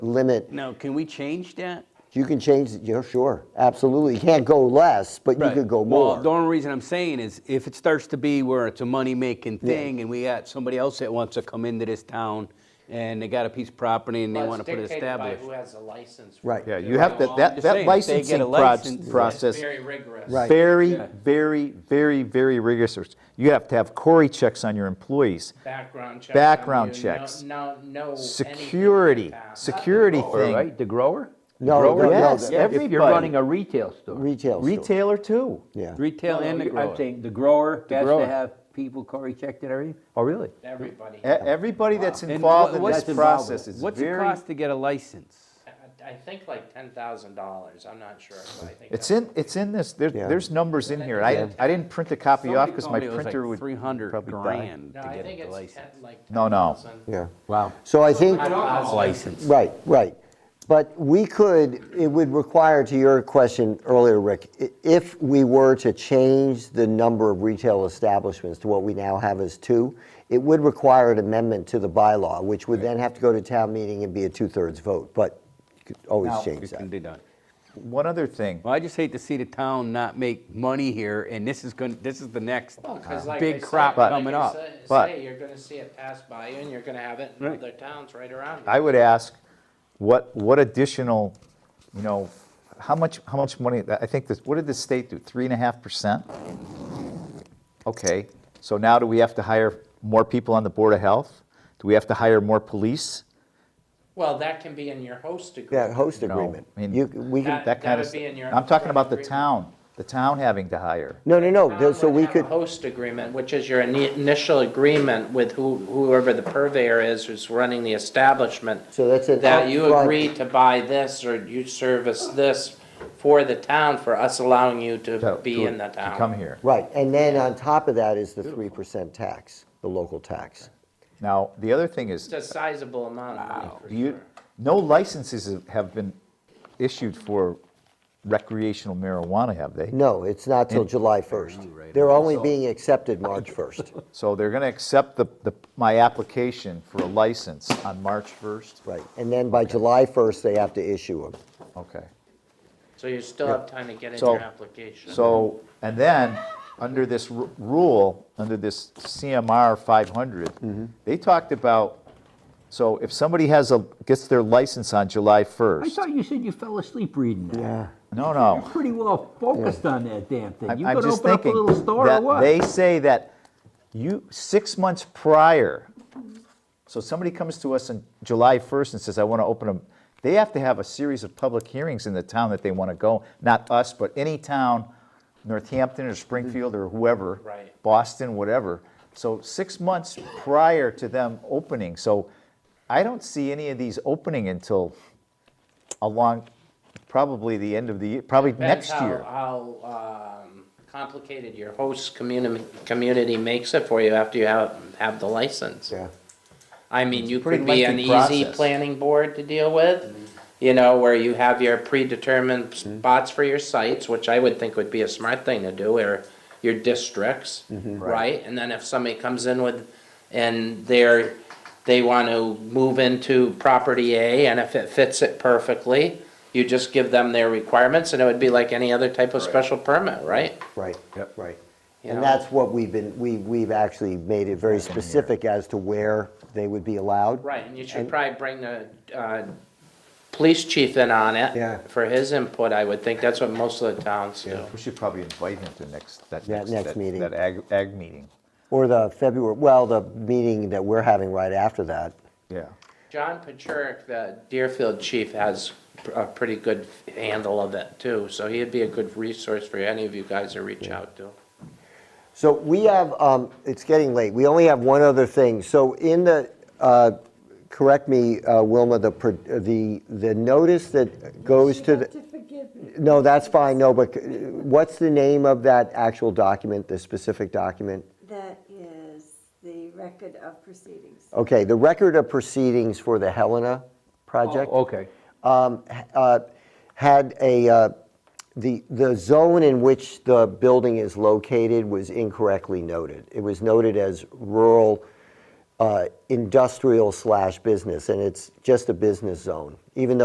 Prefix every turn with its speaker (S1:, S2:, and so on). S1: limit.
S2: Now, can we change that?
S1: You can change, it, yeah, sure, absolutely. You can't go less, but you could go
S2: Well, the
S1: more.
S2: only reason I'm saying is if it starts to be where it's a money-making thing and we got somebody else that wants to come into this town and they got a piece of property and they
S3: Well,
S2: want to
S3: it's
S2: put it
S3: dictated by
S2: established.
S3: Who has a license. for
S1: Right.
S3: it.
S4: Yeah, you have to,
S3: Well,
S2: I'm
S4: that,
S2: just
S4: that
S2: saying, if they
S4: licensing
S2: get a
S4: proj-
S2: license, it's
S3: It's
S4: process,
S3: very rigorous.
S1: Right.
S4: very, very, very, very rigorous. You have to have Cory checks on your employees.
S3: Background checks.
S4: Background
S3: on you,
S4: checks.
S3: No, no. anything
S4: Security,
S3: like that.
S4: security
S5: Or,
S4: thing.
S5: Right, the grower? The
S1: No,
S5: grower?
S1: no, no,
S4: Yes,
S1: the-
S4: every-
S5: If you're
S4: everybody.
S5: running a retail store.
S1: Retail store,
S4: Retailer too.
S1: yeah.
S2: Retail
S5: No,
S2: and the
S5: you-
S2: grower.
S5: I'm saying the grower has
S4: grower.
S5: to have people Cory checked and everything.
S4: Oh, really?
S3: Everybody.
S4: E- Everybody that's
S2: And
S4: involved
S2: what-
S4: in
S2: what's
S4: this
S2: the-
S4: process is
S2: What's it
S4: very,
S2: cost to get a license?
S3: I- I think like ten thousand dollars, I'm not sure, but I think.
S4: it's
S3: that's-
S4: in, it's in this, there,
S1: Yeah.
S4: there's numbers in here. I, I didn't print the copy off because my printer would
S2: Three hundred
S4: probably die.
S2: grand
S3: No,
S2: to
S3: I
S2: get
S3: think
S2: a
S3: it's
S2: license.
S3: ten, like.
S4: No, no.
S3: $10,000.
S1: Yeah.
S2: Wow.
S1: So I think.
S3: I don't know.
S2: License.
S1: Right, right. But we could, it would require, to your question earlier, Rick, i- if we were to change the number of retail establishments to what we now have as two, it would require an amendment to the bylaw, which would then have to go to town meeting and be a two-thirds vote, but you could always
S4: Now,
S1: change
S2: It can
S1: that.
S2: be done.
S4: One other thing,
S2: Well, I just hate to see the town not make money here, and this is going, this is the next
S3: Well, 'cause
S1: Uh-huh.
S3: like I
S2: big
S3: said-
S2: crop
S3: like I
S2: coming up.
S3: sa-
S4: But-
S3: Say, you're gonna see it pass by you and you're gonna have it in
S2: Right.
S3: other towns right around you.
S4: I would ask, what, what additional, you know, how much, how much money, I think this, what did the state do, three and a half percent? Okay, so now do we have to hire more people on the Board of Health? Do we have to hire more police?
S3: Well, that can be in your host agreement.
S1: Yeah, host
S4: No,
S1: agreement.
S4: I mean-
S1: You, c- we can,
S3: That-
S4: That kind of,
S3: would be in your-
S4: I'm talking about the
S3: Agreement.
S4: town, the town having to hire.
S1: no, no, no,
S3: Town
S1: th- so
S3: would
S1: we
S3: have a
S1: could,
S3: Host agreement, which is your ini- initial agreement with who- whoever the purveyor is who's running the establishment.
S1: So that's an
S3: That you
S1: upfront-
S3: agree to buy this or you service this for the town for us allowing you to
S4: to-
S3: be
S4: to-
S3: in the
S4: to
S3: town.
S4: Come here.
S1: right, and then on top of that is the 3% tax, the local tax.
S4: Now, the other thing is,
S3: It's a sizable amount of money for
S4: Do you,
S3: sure.
S4: no licenses have been issued for recreational marijuana, have they?
S1: No, it's not till July 1st. They're only being accepted March 1st,
S4: So they're going to accept the, the, my application for a license on March 1st?
S1: right. And then by July 1st, they have to issue them.
S4: Okay.
S3: So you still have time to get in
S4: So-
S3: your application.
S4: So, and then, under this ru- rule, under this CMR 500, they talked about, so if somebody has a, gets their license on July
S5: I
S4: 1st,
S5: thought you said you fell asleep reading that. Yeah.
S4: no, no.
S5: Pretty well focused on that damn thing. You
S4: I'm- I'm
S5: gonna
S4: just
S5: open up a
S4: thinking
S5: little store or
S4: that
S5: what?
S4: They say that you, six months prior, so somebody comes to us on July 1st and says, I want to open a, they have to have a series of public hearings in the town that they want to go, not us, but any town, Northampton or Springfield or whoever.
S3: Right.
S4: Boston, whatever. So six months prior to them opening, so I don't see any of these opening until along, probably the end of the, year, probably
S3: Depends
S4: next
S3: how-
S4: year.
S3: How um, complicated your host community, community makes it for you after you have, have the license.
S1: Yeah.
S3: I mean, you
S4: pretty
S3: could be an
S4: lengthy
S3: easy
S4: process.
S3: planning board to deal with, you know, where you have your predetermined
S4: Mm-hmm.
S3: spots for your sites, which I would think would be a smart thing to do, or your districts,
S4: Mm-hmm.
S3: right? And then if somebody comes in with, and they're, they want to move into property A, and if it fits it perfectly, you just give them their requirements, and it would be like any other type of special permit, right?
S1: Right, right.
S3: You
S1: And
S3: know?
S1: that's what we've been, we, we've actually made it very specific as to where they would be allowed.
S3: Right, and you should probably bring the uh, police chief in on it.
S1: Yeah.
S3: For his input, I would think. That's what most of the towns do.
S4: We should probably invite him to next, that
S1: That
S4: next.
S1: next meeting.
S4: That ag, ag meeting,
S1: Or the February, well, the meeting that we're having right after that.
S4: yeah.
S3: John Pachurik, the Deerfield chief, has a pretty good handle of it too. So he'd be a good resource for any of you guys to reach out to.
S1: So we have, um, it's getting late, we only have one other thing. So in the, uh, correct me, uh, Wilma, the, pro- the, the notice that goes to the. No, that's fine, no, but uh, what's the name of that actual document, the specific document?
S6: That is the record of proceedings.
S1: Okay, the record of proceedings for the Helena project
S5: Okay.
S1: um, h- uh, had a, uh, the, the zone in which the building is located was incorrectly noted. It was noted as rural, uh, uh, industrial slash business, and it's just a business zone, even though.